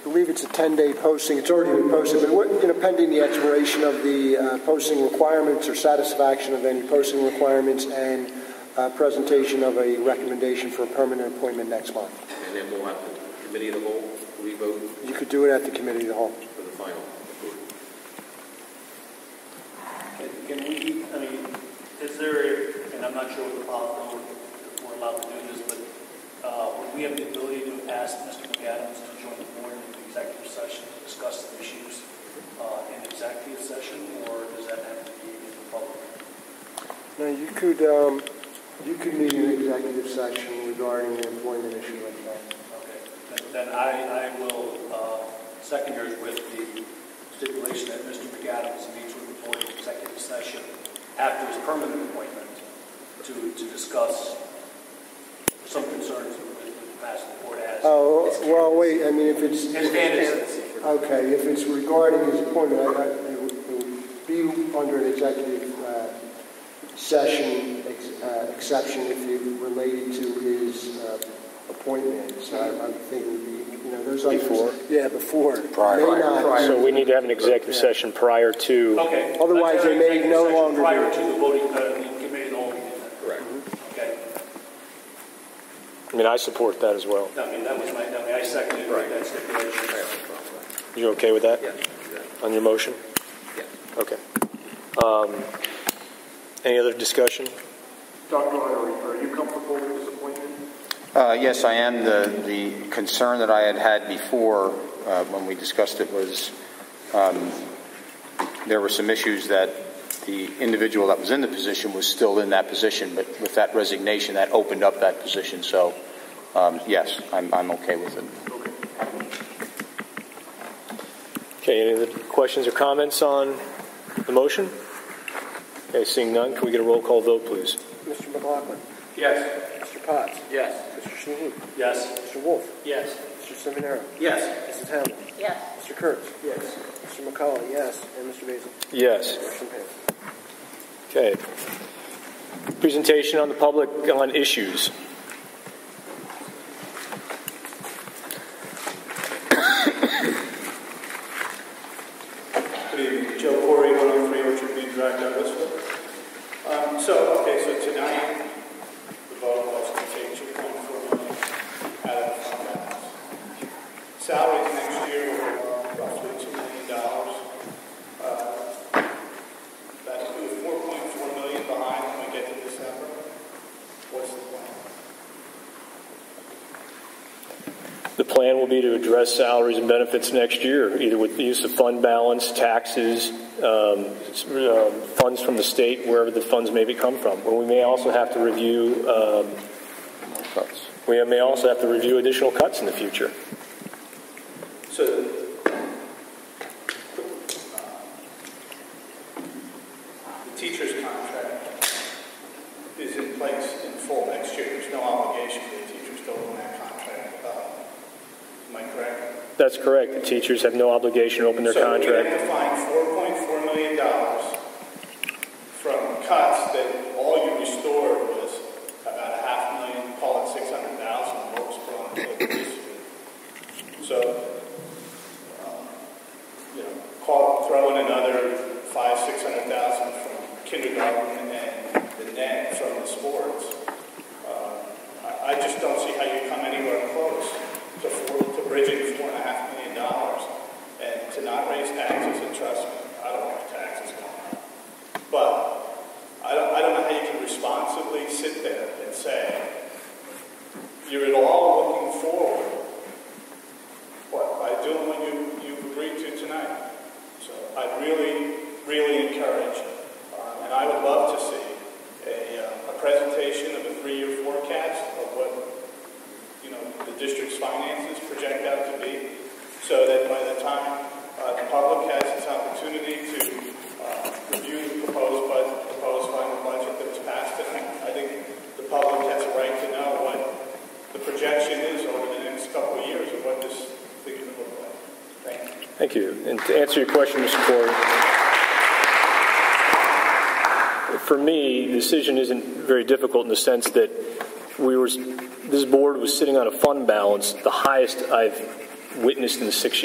believe it's a 10-day posting. It's already been posted, but what, you know, pending the expiration of the uh, posting requirements or satisfaction of any posting requirements and uh, presentation of a recommendation for a permanent appointment next month. And then we'll have the committee of the whole revote You could do it at the committee of the whole. for the final. Can we, I mean, is there, and I'm not sure what the policy, if we're allowed to do this, but uh, would we have the ability to ask Mr. McAdams to join the board in the executive session to discuss the issues uh, in executive session, or does that have to be in the public? Now, you could, um, you could meet an executive section regarding the employment issue like that. Okay, Then- then I, I will uh, second yours with the stipulation that Mr. McAdams meets with the board in executive session after his permanent appointment to, to discuss some concerns with the past the board has. Oh, well, wait, I mean, if it's. His candidacy. Okay, if it's regarding his appointment, I, I, it would, it would be under an executive, uh, session, ex- uh, exception if it related to his, uh, appointment. So I, I think it would be, you know, those items. Before? Yeah, before. Prior. May not. So we need to have an executive session prior to, Okay. Otherwise, Let's have they an may executive no session longer be- Prior to the voting, uh, the committee of the whole meeting. Correct. Okay, I mean, I support that as well. I mean, that was my, I mean, I seconded Right. that stipulation. You okay with that? Yeah, exactly. On your motion? Yeah. Okay. Um, Any other discussion? Dr. Lowry, are you comfortable with this appointment? Uh, Yes, I am. The the concern that I had had before uh, when we discussed it was um, there were some issues that the individual that was in the position was still in that position, but with that resignation, that opened up that position. So, um, yes, I'm I'm okay with it. Okay, any other questions or comments on the motion? Okay, seeing none, can we get a roll call vote, please? Mr. McLaughlin, Yes. Mr. Potts, Yes. Mr. Shinhue, Yes. Mr. Wolf, Yes. Mr. Seminara, Yes. Mrs. Hamlin, yes, Mr. Kurtz, Yes. Mr. McCullough, yes, and Mr. Basil. Yes. Motion passed. Okay. Presentation on the public on issues. Good evening, Joe Corey, 103 Orchard Green Drive, Douglasville. Um, So, okay, so tonight, the vote was to take 2.4 million out of the fund balance. Salaries next year were roughly $2 million. Uh, That includes 4.4 million behind when we get to December. What's the plan? The plan will be to address salaries and benefits next year, either with the use of fund balance, taxes, um, s- uh, funds from the state, wherever the funds may be come from. Or we may also have to review, um, we may also have to review additional cuts in the future. So, the teacher's contract is in place in full next year. There's no obligation for the teachers to open that contract up. Am I correct? That's correct. The teachers have no obligation to open their So we contract. have to find $4.4 million from cuts that all you restored was about a half million, call it 600,000 works per employee. So um, you know, call, throw in another five, six hundred thousand from kindergarten and the net from the sports. Uh, I, I just don't see how you come anywhere close to four, to bridging four and a half million dollars and to not raise taxes and trust me, I don't like taxes going up. But I don't, I don't know how you can responsibly sit there and say, you're at all looking forward what, by doing what you, you agreed to tonight. So I really, really encourage, uh, and I would love to see a, uh, a presentation of a three-year forecast of what, you know, the district's finances project out to be, so that by the time uh, the public has its opportunity to uh, review the proposed budget, proposed final budget that was passed tonight, I think the public has a right to know what the projection is over the next couple of years of what this thing is going to look like. Thank you. Thank you. And to answer your question, Mr. Corey, for me, the decision isn't very difficult in the sense that we were, this board was sitting on a fund balance, the highest I've witnessed in six